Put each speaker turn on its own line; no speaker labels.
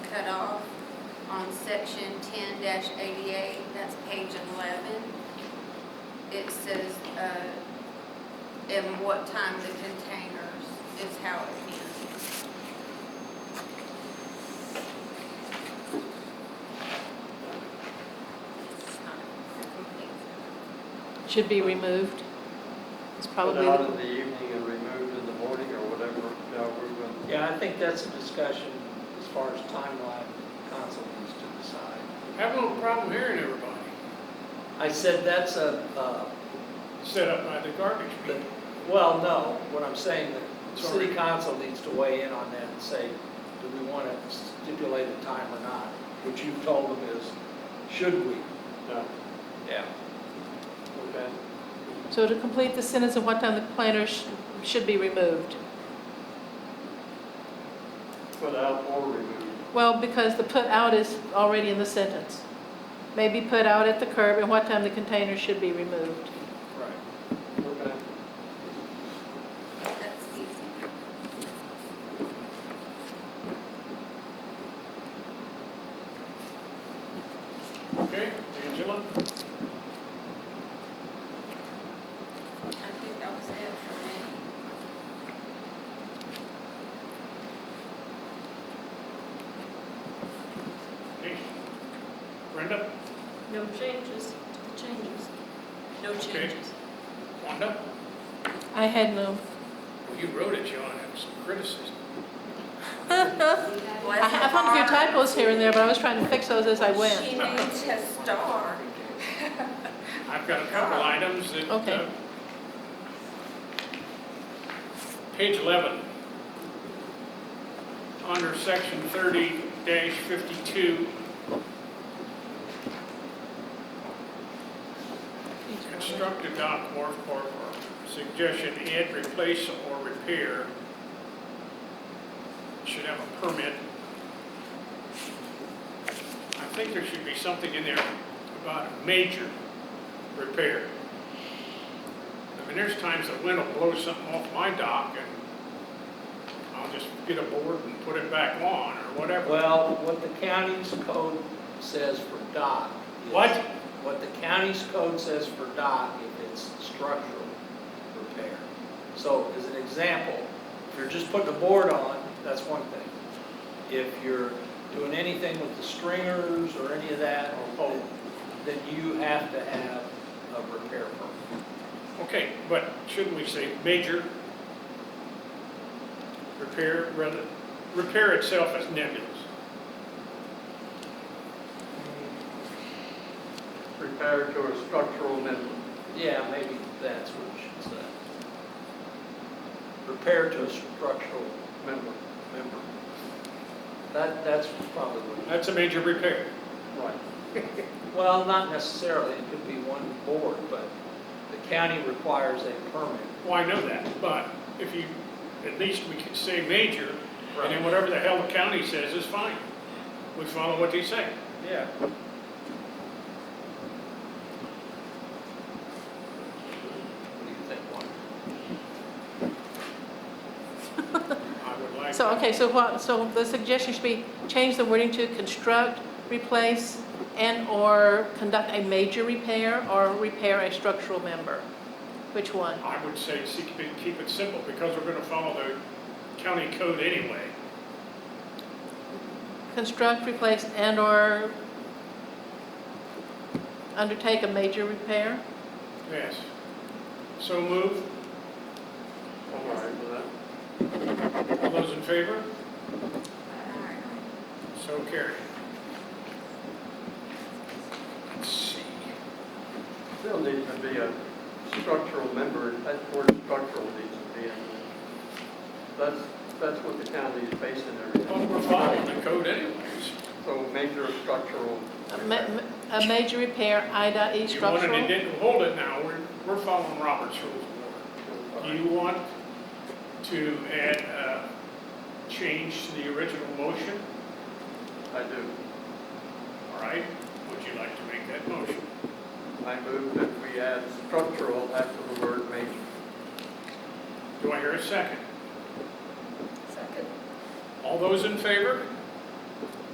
section ten eighty-eight, that's page eleven. It says, uh, and what time the containers is how it ends. It's not complete.
Should be removed. It's
Put
probably,
out in
the-
the evening and removed in the morning or whatever, yeah, we will.
Yeah, I think that's a discussion as far as timeline council needs to decide.
Have a little problem hearing everybody,
I said that's a, uh,
set up by the garbage
the-
people.
well, no, what I'm saying, that the city
Sorry.
council needs to weigh in on that and say, do we want to stipulate a time or not? Which you've told them is, should we?
Yeah,
Yeah.
okay.
so to complete the sentence of what time the planner sh- should be removed.
Put out or removed.
Well, because the put out is already in the sentence. May be put out at the curb and what time the container should be removed.
Right.
Okay.
That's easy.
Okay, Angela?
I think that was it for me.
Okay. Brenda?
No changes to the changes. No
Okay.
changes.
Wanda?
I had no,
Well, you wrote it, John, that was some criticism.
I I found a few typos here and there, but I was trying to fix those as I went.
She needs a star.
I've got a couple items that.
Okay.
uh, Page 11. Under section 30-52, construct a dock wharf or or suggestion, add, replace, or repair. Should have a permit. I think there should be something in there about a major repair. I mean, there's times the wind will blow something off my dock and I'll just get a board and put it back on or whatever.
Well, what the county's code says for dock. is-
What?
What the county's code says for dock, if it's structural repair. So as an example, if you're just putting a board on, that's one thing. If you're doing anything with the stringers or any of that, or
Oh.
pole, then you have to have a repair permit.
Okay, but shouldn't we say major repair, rather, repair itself is nebulous.
Repair to a structural minimum.
Yeah, maybe that's what you should say. Repair to a structural
Minimum.
member. That, that's probably what,
That's a major repair.
Right.
well, not necessarily, it could be one board, but the county requires a permit.
Well, I know that, but if you, at least we could say major, and then whatever the hell the county says is fine. We follow what they say.
Yeah. What do you think, Juan?
I would like.
So, okay, so what, so the suggestion should be change the wording to construct, replace, and/or conduct a major repair or repair a structural member. Which one?
I would say see- keep it- keep it simple, because we're gonna follow the county code anyway.
Construct, replace, and/or undertake a major repair?
Yes. So move.
All right with that.
All those in favor?
Alright.
So carried. Let's see.
Still needs to be a structural member, that word structural needs to be in there. That's, that's what the county is basing
Well,
everything.
we're following the code anyways.
So major structural.
A Uh, ma- ma- a major repair, I dot E
You wanted
structural?
to didn't hold it now, we're, we're following Robert's rules of order. You want to add, uh, change to the original motion,
I do.
all right? Would you like to make that motion?
I move that we add structural after the word major.
Do I hear a second?
Second.
All those in favor?